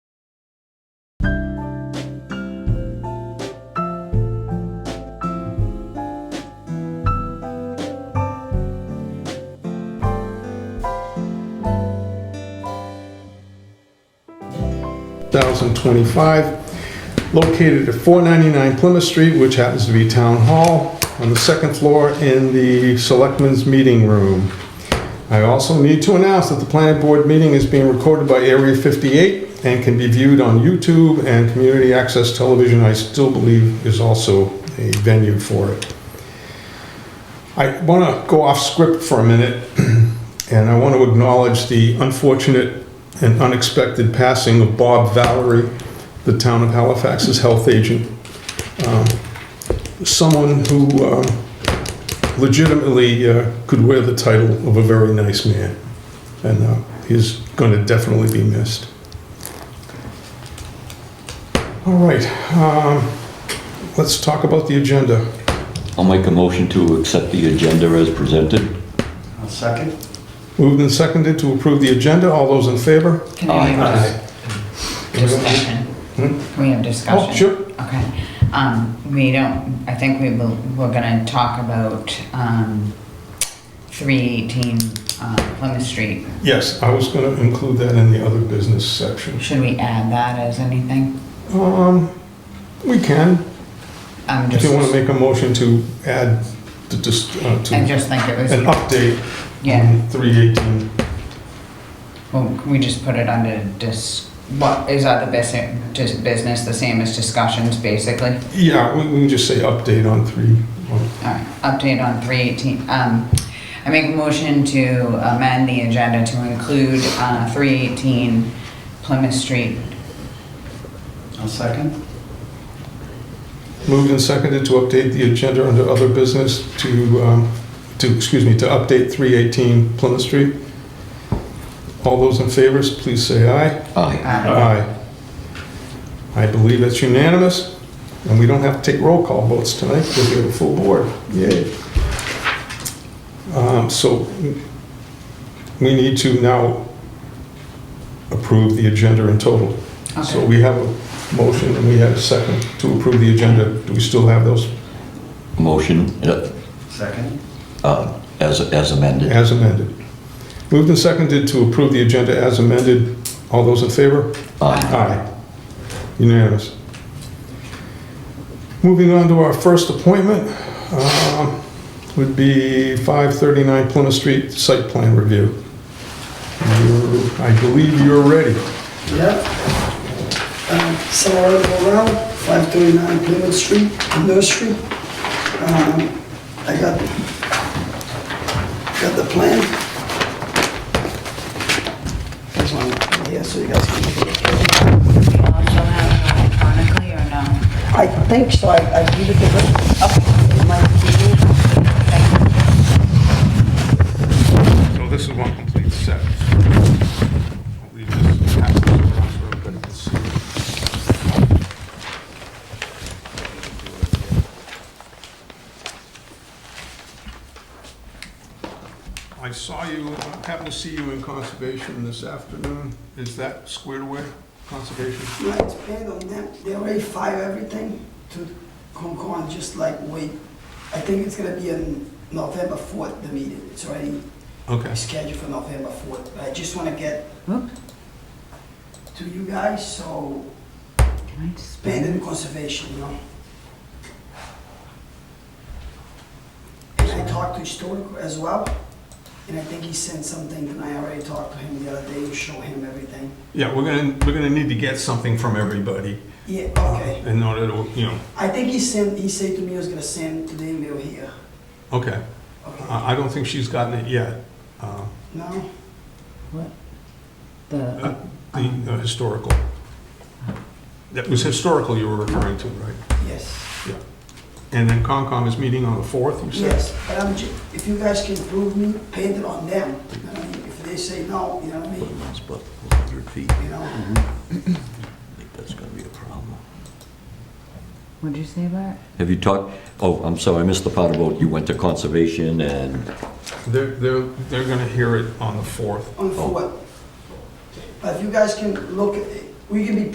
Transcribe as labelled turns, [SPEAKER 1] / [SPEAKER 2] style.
[SPEAKER 1] 2025, located at 499 Plymouth Street, which happens to be Town Hall, on the second floor in the Selectmen's Meeting Room. I also need to announce that the planning board meeting is being recorded by Area 58 and can be viewed on YouTube and Community Access Television, I still believe is also a venue for it. I want to go off script for a minute, and I want to acknowledge the unfortunate and unexpected passing of Bob Valerie, the town of Halifax's health agent. Um, Someone who um, legitimately uh, could wear the title of a very nice man, and uh, he's going to definitely be missed. All right, um, let's talk about the agenda.
[SPEAKER 2] I'll make a motion to accept the agenda as presented.
[SPEAKER 3] I'll second.
[SPEAKER 1] Moved and seconded to approve the agenda. All those in favor?
[SPEAKER 4] Can we
[SPEAKER 3] Aye.
[SPEAKER 4] have a discussion? Can we have discussion?
[SPEAKER 1] Oh, sure.
[SPEAKER 4] Okay. Um, we don't, I think we will, we're gonna talk about, um, three eighteen, uh, Plymouth Street.
[SPEAKER 1] Yes, I was going to include that in the other business section.
[SPEAKER 4] Should we add that as anything?
[SPEAKER 1] Um, we can.
[SPEAKER 4] I'm
[SPEAKER 1] If
[SPEAKER 4] just,
[SPEAKER 1] you want to make a motion to add to just, uh, to
[SPEAKER 4] I
[SPEAKER 1] an
[SPEAKER 4] just think it was,
[SPEAKER 1] update
[SPEAKER 4] yeah,
[SPEAKER 1] on 318.
[SPEAKER 4] well, can we just put it under dis, what is other business, just business, the same as discussions, basically?
[SPEAKER 1] Yeah, we, we can just say update on three. on-
[SPEAKER 4] All right, update on three eighteen, um, I make a motion to amend the agenda to include, uh, three eighteen Plymouth Street.
[SPEAKER 3] I'll second.
[SPEAKER 1] Moved and seconded to update the agenda under other business to, um, to, excuse me, to update 318 Plymouth Street. All those in favors, please say aye.
[SPEAKER 2] Aye.
[SPEAKER 4] Uh,
[SPEAKER 1] Aye. I believe it's unanimous, and we don't have to take roll call votes tonight because we have a full board. Yay. Um, So we need to now approve the agenda in total. Uh, So
[SPEAKER 4] Okay,
[SPEAKER 1] we have a motion and we have a second to approve the agenda. Do we still have those
[SPEAKER 2] Motion uh,
[SPEAKER 3] Second.
[SPEAKER 2] uh, as as amended.
[SPEAKER 1] as amended? Moved and seconded to approve the agenda as amended. All those in favor?
[SPEAKER 2] Aye.
[SPEAKER 1] Aye. Unanimous. Moving on to our first appointment, um, would be 539 Plymouth Street Site Plan Review. You're- I believe you're ready.
[SPEAKER 5] Yep. Uh, Sarah Burrell, 539 Plymouth Street, Nursery. Um, I got, got the plan. There's one right here, so you guys can look at it.
[SPEAKER 4] we also have electronically or no?
[SPEAKER 5] I think so, I I give it to her. It might be you.
[SPEAKER 1] So this is one complete set. I saw you, happened to see you in conservation this afternoon. Is that squared away, conservation?
[SPEAKER 5] No, it's paid on them, they already fire everything to Concom, just like wait. I think it's gonna be on November 4th, the meeting, it's already
[SPEAKER 1] Okay.
[SPEAKER 5] scheduled for November 4th. I just want to get
[SPEAKER 4] Oop.
[SPEAKER 5] to you guys, so
[SPEAKER 4] Can I just-
[SPEAKER 5] abandon conservation, you know? And I talked to historic as well, and I think he sent something, and I already talked to him the other day to show him everything.
[SPEAKER 1] Yeah, we're gonna, we're gonna need to get something from everybody uh,
[SPEAKER 5] Yeah, okay.
[SPEAKER 1] in order to, you know,
[SPEAKER 5] I think he sent, he said to me he was gonna send to the email here.
[SPEAKER 1] okay.
[SPEAKER 5] Okay,
[SPEAKER 1] I I don't think she's gotten it yet. Uh,
[SPEAKER 5] no?
[SPEAKER 4] The,
[SPEAKER 1] The uh, historical. That was historical you were referring to, right?
[SPEAKER 5] Yes,
[SPEAKER 1] And then Concom is meeting on the 4th, you said?
[SPEAKER 5] yes, but I'm, ju- if you guys can prove me, paint it on them. You know what I mean? If they say no, you know what I mean?
[SPEAKER 2] It's about 100 feet.
[SPEAKER 5] You know?
[SPEAKER 2] I think that's going to be a problem.
[SPEAKER 4] what'd you say about?
[SPEAKER 2] Have you talked, oh, I'm sorry, I missed the part about you went to conservation and,
[SPEAKER 1] They're, they're, they're going to hear it on the 4th.
[SPEAKER 5] on the
[SPEAKER 2] Oh.
[SPEAKER 5] fourth. But if you guys can look, at it, we can be